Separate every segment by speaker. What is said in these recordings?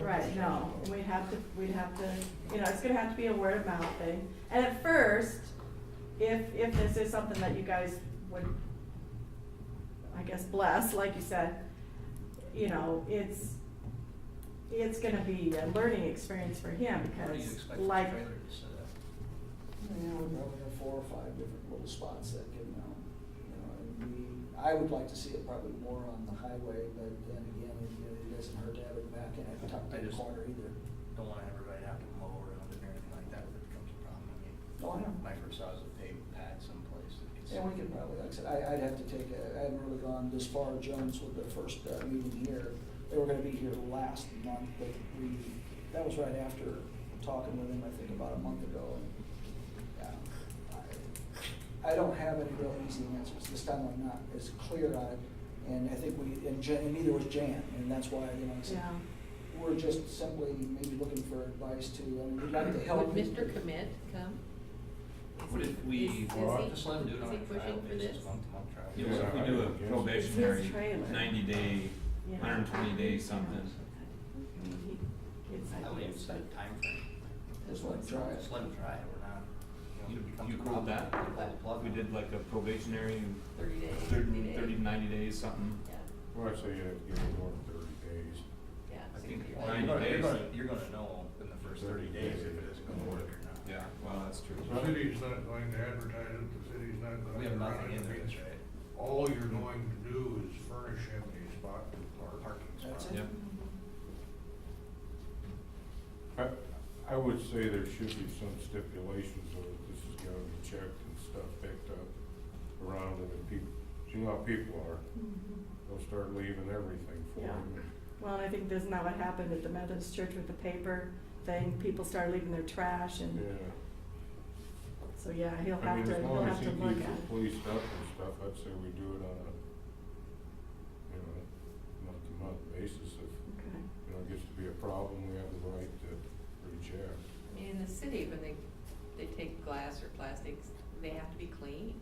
Speaker 1: Right, no, and we'd have to, we'd have to, you know, it's gonna have to be a word of mouth thing. And at first, if, if this is something that you guys would, I guess, bless, like you said, you know, it's, it's gonna be a learning experience for him
Speaker 2: What do you
Speaker 1: because
Speaker 2: expect the trailer
Speaker 1: like,
Speaker 2: to set
Speaker 3: Yeah, we probably have four or five different little spots that can mount, you know, and we, I would like to see it probably more on the highway, but then again, it, it doesn't hurt to have it back in a tucked
Speaker 2: I
Speaker 3: in
Speaker 2: just-
Speaker 3: corner either.
Speaker 2: up? Don't want everybody to have to mow around it or anything like that, if it becomes a problem, I mean.
Speaker 3: Oh, I know.
Speaker 2: My first thought was a paved pad someplace that could.
Speaker 3: And we could probably, like I said, I, I'd have to take a, I hadn't really gone this far, Jones, with the first uh, meeting here. They were gonna be here last month, but we, that was right after talking with him, I think, about a month ago. And yeah, I- I don't have any real easy answers. This time I'm not as clear on it. And I think we, and Jan, and neither was Jan, and that's why, you know, I said,
Speaker 1: yeah.
Speaker 3: we're just simply maybe looking for advice to, I mean, we'd like to help.
Speaker 4: Would Mr. Commit come? Is
Speaker 2: What
Speaker 4: he-
Speaker 2: if we,
Speaker 4: is- is
Speaker 2: we're
Speaker 4: he-
Speaker 2: off to Slim, do it
Speaker 4: is
Speaker 2: on
Speaker 4: he
Speaker 2: a trial
Speaker 4: pushing for
Speaker 2: basis,
Speaker 4: this?
Speaker 2: month to month trial?
Speaker 5: Yeah, what if we do
Speaker 2: Alright.
Speaker 5: a
Speaker 1: It's
Speaker 5: probationary,
Speaker 1: his trailer.
Speaker 5: ninety day,
Speaker 1: yeah.
Speaker 5: hundred and twenty day something?
Speaker 1: He gets
Speaker 2: I would even
Speaker 1: ideas,
Speaker 2: set a timeframe,
Speaker 3: Just like try it.
Speaker 2: Slim try, it, we're not, you
Speaker 5: You,
Speaker 2: know, if it becomes
Speaker 5: you
Speaker 2: a
Speaker 5: cool
Speaker 2: problem,
Speaker 5: with that?
Speaker 2: we pull the plug.
Speaker 5: We did like a probationary,
Speaker 4: Thirty days, sixty
Speaker 5: thirty,
Speaker 4: days?
Speaker 5: thirty, ninety days, something.
Speaker 4: Yeah,
Speaker 6: Well, I'd say you have to give it more than thirty days.
Speaker 4: yeah.
Speaker 2: I think
Speaker 4: 60
Speaker 2: you're
Speaker 4: days.
Speaker 5: Ninety
Speaker 2: gonna, you're
Speaker 5: days.
Speaker 2: gonna, you're gonna know in the first thirty
Speaker 6: Thirty
Speaker 2: days
Speaker 6: days.
Speaker 2: if it isn't gonna work or not.
Speaker 5: Yeah, well, that's true.
Speaker 7: The city's not going to advertise it, the city's not going to.
Speaker 2: We have nothing
Speaker 7: run
Speaker 2: in there,
Speaker 7: anything.
Speaker 2: that's right,
Speaker 7: All you're going to do is furnish him a spot to
Speaker 2: or
Speaker 7: park.
Speaker 2: parking spot.
Speaker 3: That's it.
Speaker 5: Yep,
Speaker 1: Mm-hmm.
Speaker 6: I, I would say there should be some stipulations of this is gonna be checked and stuff picked up around it, and people, you know how people are,
Speaker 1: Mhm.
Speaker 6: they'll start leaving everything for
Speaker 1: Yeah.
Speaker 6: them.
Speaker 1: Well, and I think isn't that what happened at the Methodist Church with the paper thing? People started leaving their trash and
Speaker 6: Yeah,
Speaker 1: so yeah, he'll
Speaker 6: I
Speaker 1: have
Speaker 6: mean,
Speaker 1: to
Speaker 6: as
Speaker 1: he'll
Speaker 6: long
Speaker 1: have
Speaker 6: as he
Speaker 1: to look
Speaker 6: keeps
Speaker 1: at.
Speaker 6: it policed up and stuff, I'd say we do it on a, you know, month-to-month basis, if,
Speaker 1: Okay.
Speaker 6: you know, it gets to be a problem, we have the right to reject.
Speaker 4: I mean, in the city, when they, they take glass or plastics, they have to be clean.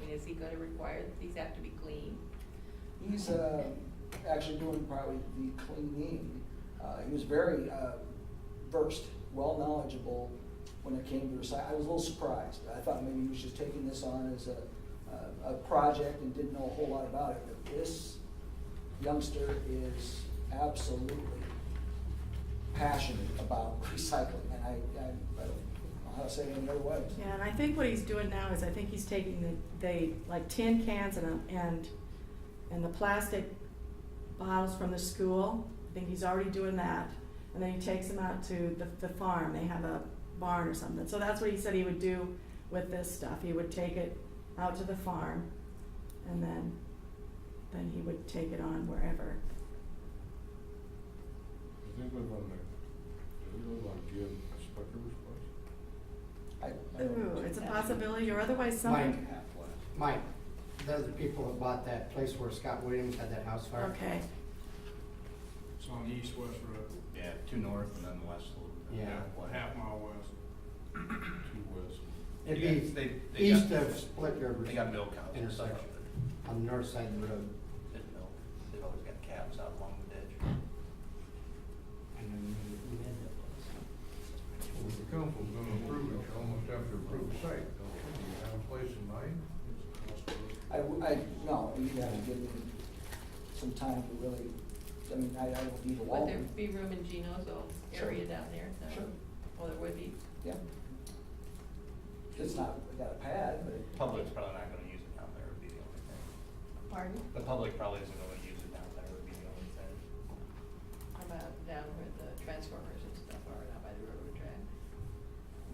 Speaker 4: I mean, is he gonna require that these have to be clean?
Speaker 3: He's uh, actually doing probably the cleaning. Uh, he was very uh, versed, well knowledgeable when it came to recycling. I was a little surprised. I thought maybe he was just taking this on as a, a, a project and didn't know a whole lot about it. But this youngster is absolutely passionate about recycling, and I, I, I don't know how to say it any other way.
Speaker 1: Yeah, and I think what he's doing now is I think he's taking the, they, like tin cans and, a- and, and the plastic bottles from the school. I think he's already doing that. And then he takes them out to the, the farm. They have a barn or something. So that's what he said he would do with this stuff. He would take it out to the farm and then, then he would take it on wherever.
Speaker 6: Do they live on the, do they live on Gib Spucker's place?
Speaker 3: I, I don't
Speaker 1: Ooh, it's a possibility or otherwise
Speaker 8: Mike,
Speaker 1: something.
Speaker 8: Mike, those are the people that bought that place where Scott Williams had that house fire.
Speaker 1: Okay,
Speaker 7: It's on the east-west road,
Speaker 2: Yeah, two north and then west a little bit.
Speaker 8: Yeah.
Speaker 2: What
Speaker 7: mile west.
Speaker 6: Two west.
Speaker 8: It'd
Speaker 2: They-
Speaker 8: be
Speaker 2: they
Speaker 8: east
Speaker 2: got-
Speaker 8: of Split Rivers.
Speaker 2: They got milk cows.
Speaker 8: Intersection, on the north side of the road.
Speaker 2: There's milk, they've always got calves out along the ditch.
Speaker 8: And
Speaker 7: Well, the council's gonna approve it, you almost have to approve the site, don't you? Do you have a place in mind?
Speaker 3: I, w- I- no, you gotta give me some time to really, I mean, I, I don't need a
Speaker 4: Would
Speaker 3: wall.
Speaker 4: there be room in Gino's old
Speaker 3: Sure.
Speaker 4: area down there? No?
Speaker 3: Sure.
Speaker 4: Well, there would be.
Speaker 3: Yeah. It's not, I got a pad, but. it-
Speaker 2: Public's probably not gonna use it down there would be the only thing.
Speaker 4: Pardon?
Speaker 2: The public probably isn't gonna use it down there would be the only thing.
Speaker 4: How about down where the transformers and stuff are, down by the railroad track?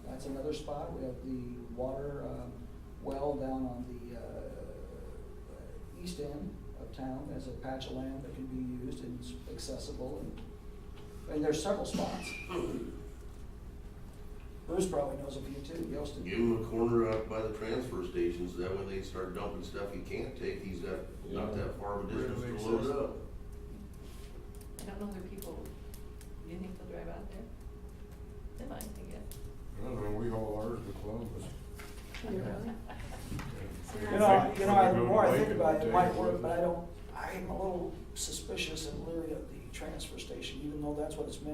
Speaker 3: That's another spot. We have the water, um, well down on the, uh, uh, east end of town. There's a patch of land that can be used and it's accessible and, and there's several spots. Bruce probably knows a few too, Yostin.
Speaker 9: Give him a corner out by the transfer stations, that way they start dumping stuff he can't take, he's got, not that far of a distance to load up.
Speaker 4: I don't know if there are people, do you think they'll drive out there? They might, I guess.
Speaker 6: I don't know, we haul ours to Columbus.
Speaker 3: You know, you know, I- the more I think about it, it might work, but I don't, I am a little suspicious and leery of the transfer station, even though that's what it's meant